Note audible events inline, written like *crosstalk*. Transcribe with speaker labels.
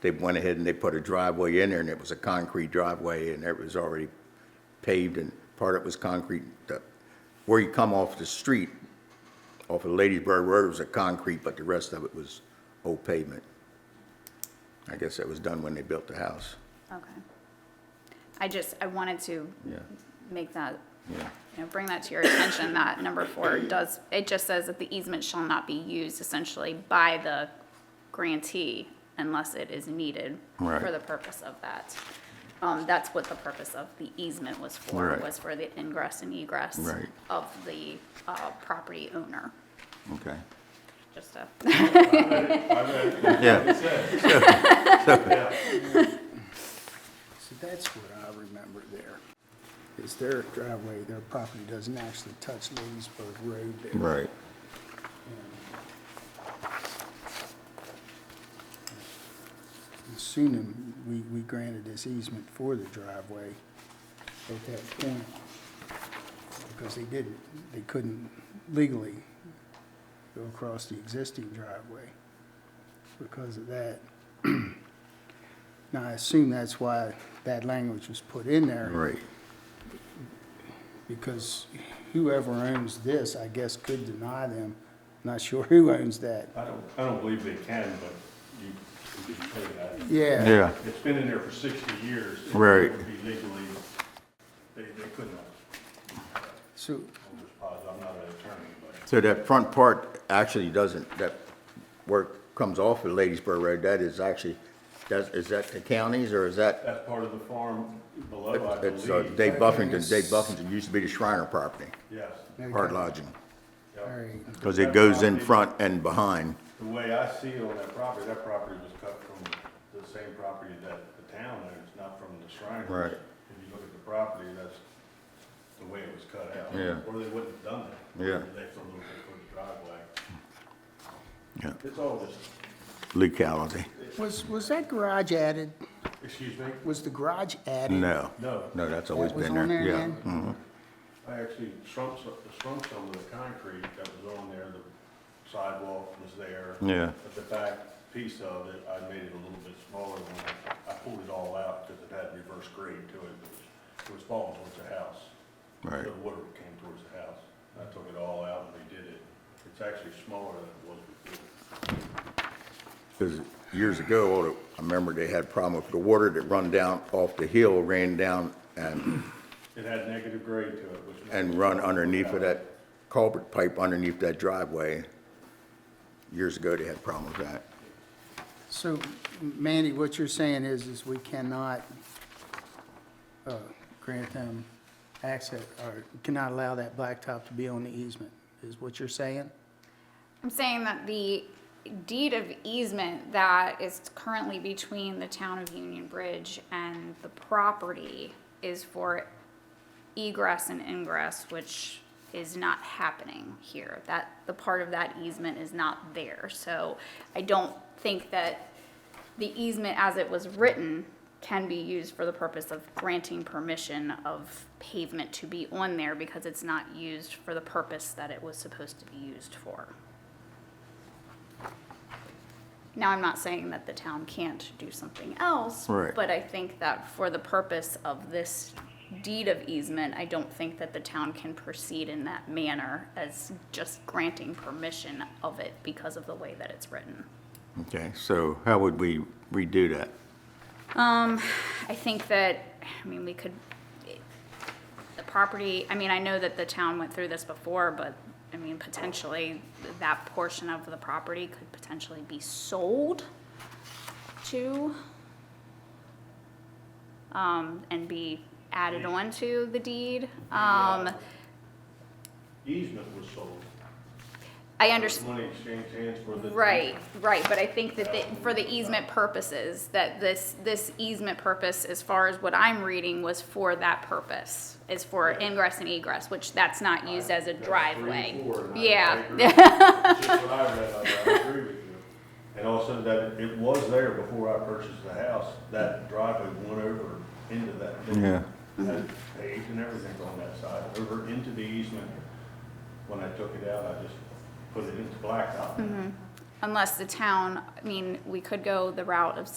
Speaker 1: they went ahead and they put a driveway in there, and it was a concrete driveway, and it was already paved, and part of it was concrete. The- Where you come off the street, off of Ladiesburg Road, it was a concrete, but the rest of it was old pavement. I guess that was done when they built the house.
Speaker 2: Okay. I just, I wanted to
Speaker 1: Yeah,
Speaker 2: make that,
Speaker 1: yeah.
Speaker 2: you know, bring that to your attention, that number four does, it just says that the easement shall not be used essentially by the grantee unless it is needed for
Speaker 1: Right.
Speaker 2: the purpose of that. Um, that's what the purpose of the easement was for,
Speaker 1: Right.
Speaker 2: was for the ingress and egress
Speaker 1: Right.
Speaker 2: of the, uh, property owner,
Speaker 1: Okay.
Speaker 2: just a.
Speaker 1: *laughs* Yeah.
Speaker 3: So that's what I remember there, is their driveway, their property doesn't actually touch Leesburg Road there.
Speaker 1: Right.
Speaker 3: Assuming we, we granted this easement for the driveway at that point, because they didn't, they couldn't legally go across the existing driveway because of that. *clears throat* Now, I assume that's why that language was put in there.
Speaker 1: Right.
Speaker 3: because whoever owns this, I guess, could deny them. Not sure who owns that.
Speaker 4: I don't, I don't believe they can, but you, you can say that.
Speaker 3: Yeah.
Speaker 1: Yeah.
Speaker 4: It's been in there for sixty years. If it
Speaker 1: Right.
Speaker 4: would be legally, they, they couldn't, have.
Speaker 3: So,
Speaker 4: I'm just positive, I'm not an attorney, but
Speaker 1: So that front part actually doesn't, that, where it comes off of Ladiesburg Road, that is actually, that's, is that the county's or is that?
Speaker 4: that's part of the farm below, I
Speaker 1: It's uh,
Speaker 4: believe.
Speaker 1: Dave Buffington, Dave Buffington used to be the Shriner property,
Speaker 4: Yes.
Speaker 3: okay.
Speaker 1: hard lodging.
Speaker 4: yeah.
Speaker 3: All right.
Speaker 1: Because it goes in front and behind.
Speaker 4: The way I see it on that property, that property was cut from the same property that the town owns, not from the Shriners.
Speaker 1: Right.
Speaker 4: If you look at the property, that's the way it was cut out.
Speaker 1: Yeah.
Speaker 4: Or they wouldn't have done
Speaker 1: Yeah.
Speaker 4: that. They left a little bit for the driveway.
Speaker 1: Yeah.
Speaker 4: It's all just,
Speaker 1: Locality.
Speaker 3: Was, was that garage added?
Speaker 4: excuse me,
Speaker 3: Was the garage added?
Speaker 1: No.
Speaker 4: No.
Speaker 1: No, that's always
Speaker 3: That was
Speaker 1: been
Speaker 3: on
Speaker 1: there,
Speaker 3: there
Speaker 1: yeah.
Speaker 3: then?
Speaker 1: Mhm.
Speaker 4: I actually shrunk, some- shrunk some of the concrete that was on there, the sidewalk was there.
Speaker 1: Yeah.
Speaker 4: But the back piece of it, I made it a little bit smaller when I, I pulled it all out because it had reverse grade to it. It was- It was falling towards the house.
Speaker 1: Right.
Speaker 4: The water came towards the house. I took it all out and redid it. It's actually smaller than it was before.
Speaker 1: Because years ago, all the- I remember they had a problem with the water that run down off the hill, ran down and,
Speaker 4: It had negative grade to it, which.
Speaker 1: and run underneath of that culvert pipe underneath that driveway. Years ago, they had problems with that.
Speaker 3: So Mandy, what you're saying is, is we cannot uh, grant them access, or cannot allow that blacktop to be on the easement, is what you're saying?
Speaker 2: I'm saying that the deed of easement that is currently between the town of Union Bridge and the property is for egress and ingress, which is not happening here. That, the part of that easement is not there, so I don't think that the easement as it was written can be used for the purpose of granting permission of pavement to be on there because it's not used for the purpose that it was supposed to be used for. Now, I'm not saying that the town can't do something else.
Speaker 1: Right.
Speaker 2: But I think that for the purpose of this deed of easement, I don't think that the town can proceed in that manner as just granting permission of it because of the way that it's written.
Speaker 1: Okay, so how would we redo that?
Speaker 2: Um, I think that, I mean, we could, the property, I mean, I know that the town went through this before, but, I mean, potentially, that portion of the property could potentially be sold to, um, and be added on to the deed. Um,
Speaker 4: Easement was sold.
Speaker 2: I understand.
Speaker 4: Money exchanged hands for the.
Speaker 2: Right, right, but I think that the, for the easement purposes, that this, this easement purpose, as far as what I'm reading, was for that purpose. Is for ingress and egress, which that's not used as a
Speaker 4: Uh, That's
Speaker 2: driveway.
Speaker 4: three, four,
Speaker 2: *laughs*
Speaker 4: and I- I agree.
Speaker 2: Yeah,
Speaker 4: Just what I read, I I agree with you. And also that it was there before I purchased the house, that driveway went over into that.
Speaker 1: Yeah.
Speaker 4: Had paved and everything on that side, over into the easement. When I took it out, I just
Speaker 2: Mm-hmm.
Speaker 4: put it into blacktop.
Speaker 2: unless the town, I mean, we could go the route of